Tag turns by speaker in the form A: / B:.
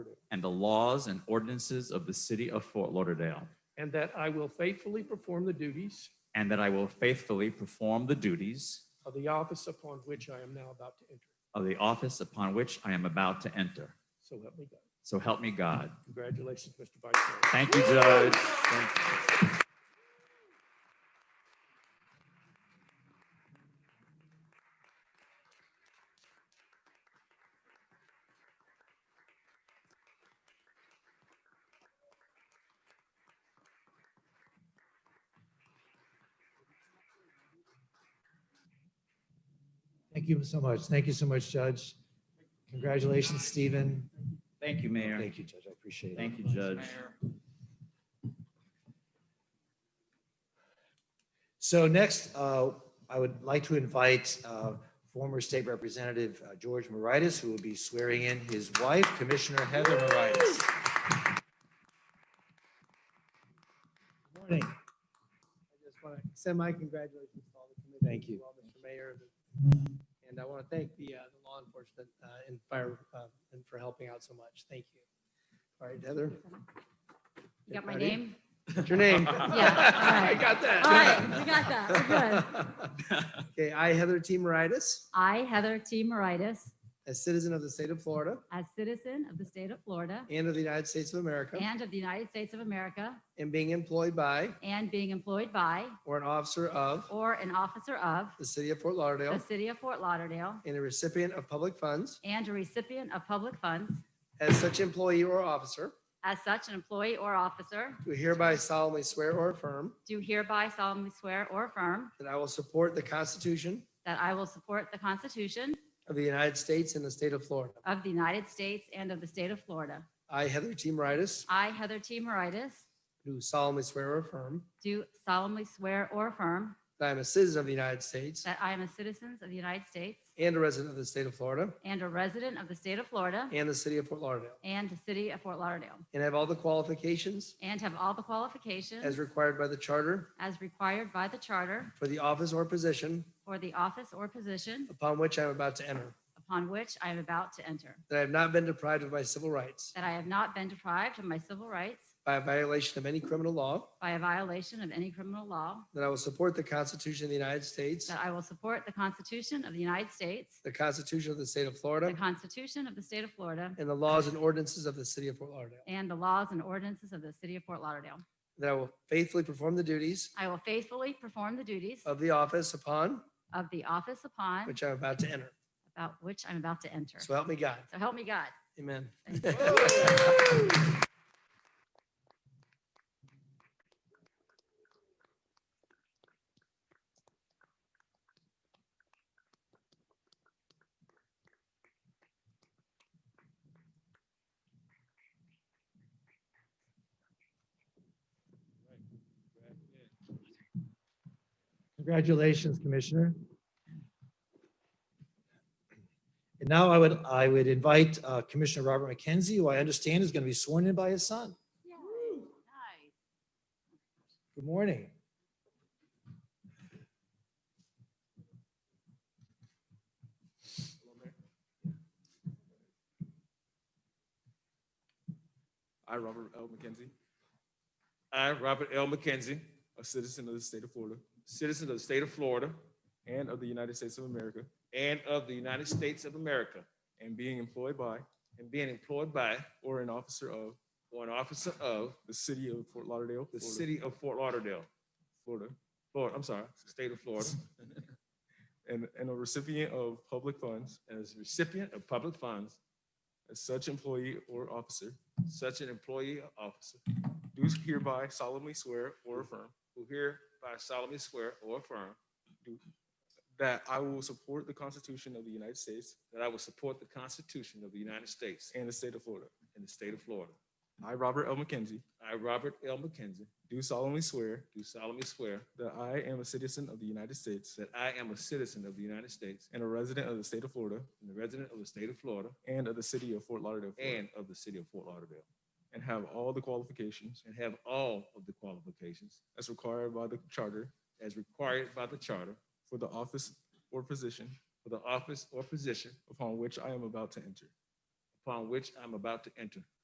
A: and the laws and ordinances of the city of Fort Lauderdale,
B: and that I will faithfully perform the duties
A: and that I will faithfully perform the duties
B: of the office upon which I am now about to enter.
A: of the office upon which I am about to enter.
B: So help me God.
A: So help me God.
B: Congratulations, Mr. Vice Mayor.
A: Thank you, Judge. Thank you.
C: Thank you so much. Thank you so much, Judge. Congratulations, Stephen.
A: Thank you, Mayor.
C: Thank you, Judge. I appreciate it.
A: Thank you, Judge.
C: So next, uh, I would like to invite uh, former State Representative uh, George Moritas, who will be swearing in his wife, Commissioner Heather Moritas.
D: Morning. I just want to send my congratulations to all the committee.
C: Thank you.
D: to all Mr. Mayor. And I want to thank the, uh, the law enforcement, uh, and fire, uh, and for helping out so much. Thank you.
C: All right, Heather.
E: You got my
C: Ready?
E: name?
C: What's your name?
E: Yeah,
B: I got that.
E: All right, we got that. We're good.
D: Okay, I, Heather T. Moritas,
E: I, Heather T. Moritas,
D: a citizen of the state of Florida
E: as citizen of the state of Florida
D: and of the United States of America,
E: and of the United States of America,
D: and being employed by
E: and being employed by
D: or an officer of
E: or an officer of
D: the city of Fort
E: the
D: Lauderdale
E: city of Fort Lauderdale
D: and a recipient of public funds
E: and a recipient of public funds,
D: as such employee or officer,
E: as such an employee or officer,
D: do hereby solemnly swear or affirm
E: do hereby solemnly swear or affirm
D: that I will support the Constitution
E: that I will support the Constitution
D: of the United States and the state of Florida.
E: of the United States and of the state of Florida.
D: I, Heather T. Moritas,
E: I, Heather T. Moritas,
D: do solemnly swear or affirm
E: do solemnly swear or affirm
D: that I am a citizen of the United States
E: That I am a citizen of the United States
D: and a resident of the state of Florida
E: and a resident of the state of Florida
D: and the city of Fort Lauderdale,
E: and the city of Fort Lauderdale,
D: and have all the qualifications
E: and have all the qualifications
D: as required by the charter
E: as required by the charter
D: for the office or position
E: for the office or position
D: upon which I am about to enter,
E: upon which I am about to enter,
D: that I have not been deprived of my civil rights
E: that I have not been deprived of my civil rights
D: by a violation of any criminal law,
E: by a violation of any criminal law,
D: that I will support the Constitution of the United States,
E: that I will support the Constitution of the United States,
D: the Constitution of the state of
E: the
D: Florida,
E: Constitution of the state of Florida,
D: and the laws and ordinances of the city of Fort Lauderdale,
E: and the laws and ordinances of the city of Fort Lauderdale.
D: that I will faithfully perform the duties
E: I will faithfully perform the duties
D: of the office upon
E: of the office upon,
D: which I'm about to enter.
E: about which I'm about to enter.
D: So help me God.
E: So help me God.
D: Amen.
C: Congratulations, Commissioner. And now I would, I would invite uh, Commissioner Robert McKenzie, who I understand is going to be sworn in by his son.
E: Yay, nice.
C: Good morning.
F: I, Robert L. McKenzie. I, Robert L. McKenzie, a citizen of the state of Florida, citizen of the state of Florida and of the United States of America, and of the United States of America, and being employed by, and being employed by, or an officer of, or an officer of the city of Fort Lauderdale, the city of Fort Lauderdale, Florida, Florida, I'm sorry, state of Florida, and, and a recipient of public funds, as recipient of public funds, as such employee or officer, such an employee or officer, do hereby solemnly swear or affirm, who hereby solemnly swear or affirm, do- that I will support the Constitution of the United States,
G: That I will support the Constitution of the United States
F: and the state of Florida.
G: and the state of Florida.
F: I, Robert L. McKenzie,
G: I, Robert L. McKenzie,
F: do solemnly swear
G: do solemnly swear
F: that I am a citizen of the United States
G: that I am a citizen of the United States
F: and a resident of the state of Florida
G: and a resident of the state of Florida
F: and of the city of Fort Lauderdale, Florida,
G: and of the city of Fort Lauderdale,
F: and have all the qualifications
G: and have all of the qualifications
F: as required by the charter
G: as required by the charter
F: for the office or position
G: for the office or position
F: upon which I am about to enter.
G: upon which I'm about to enter,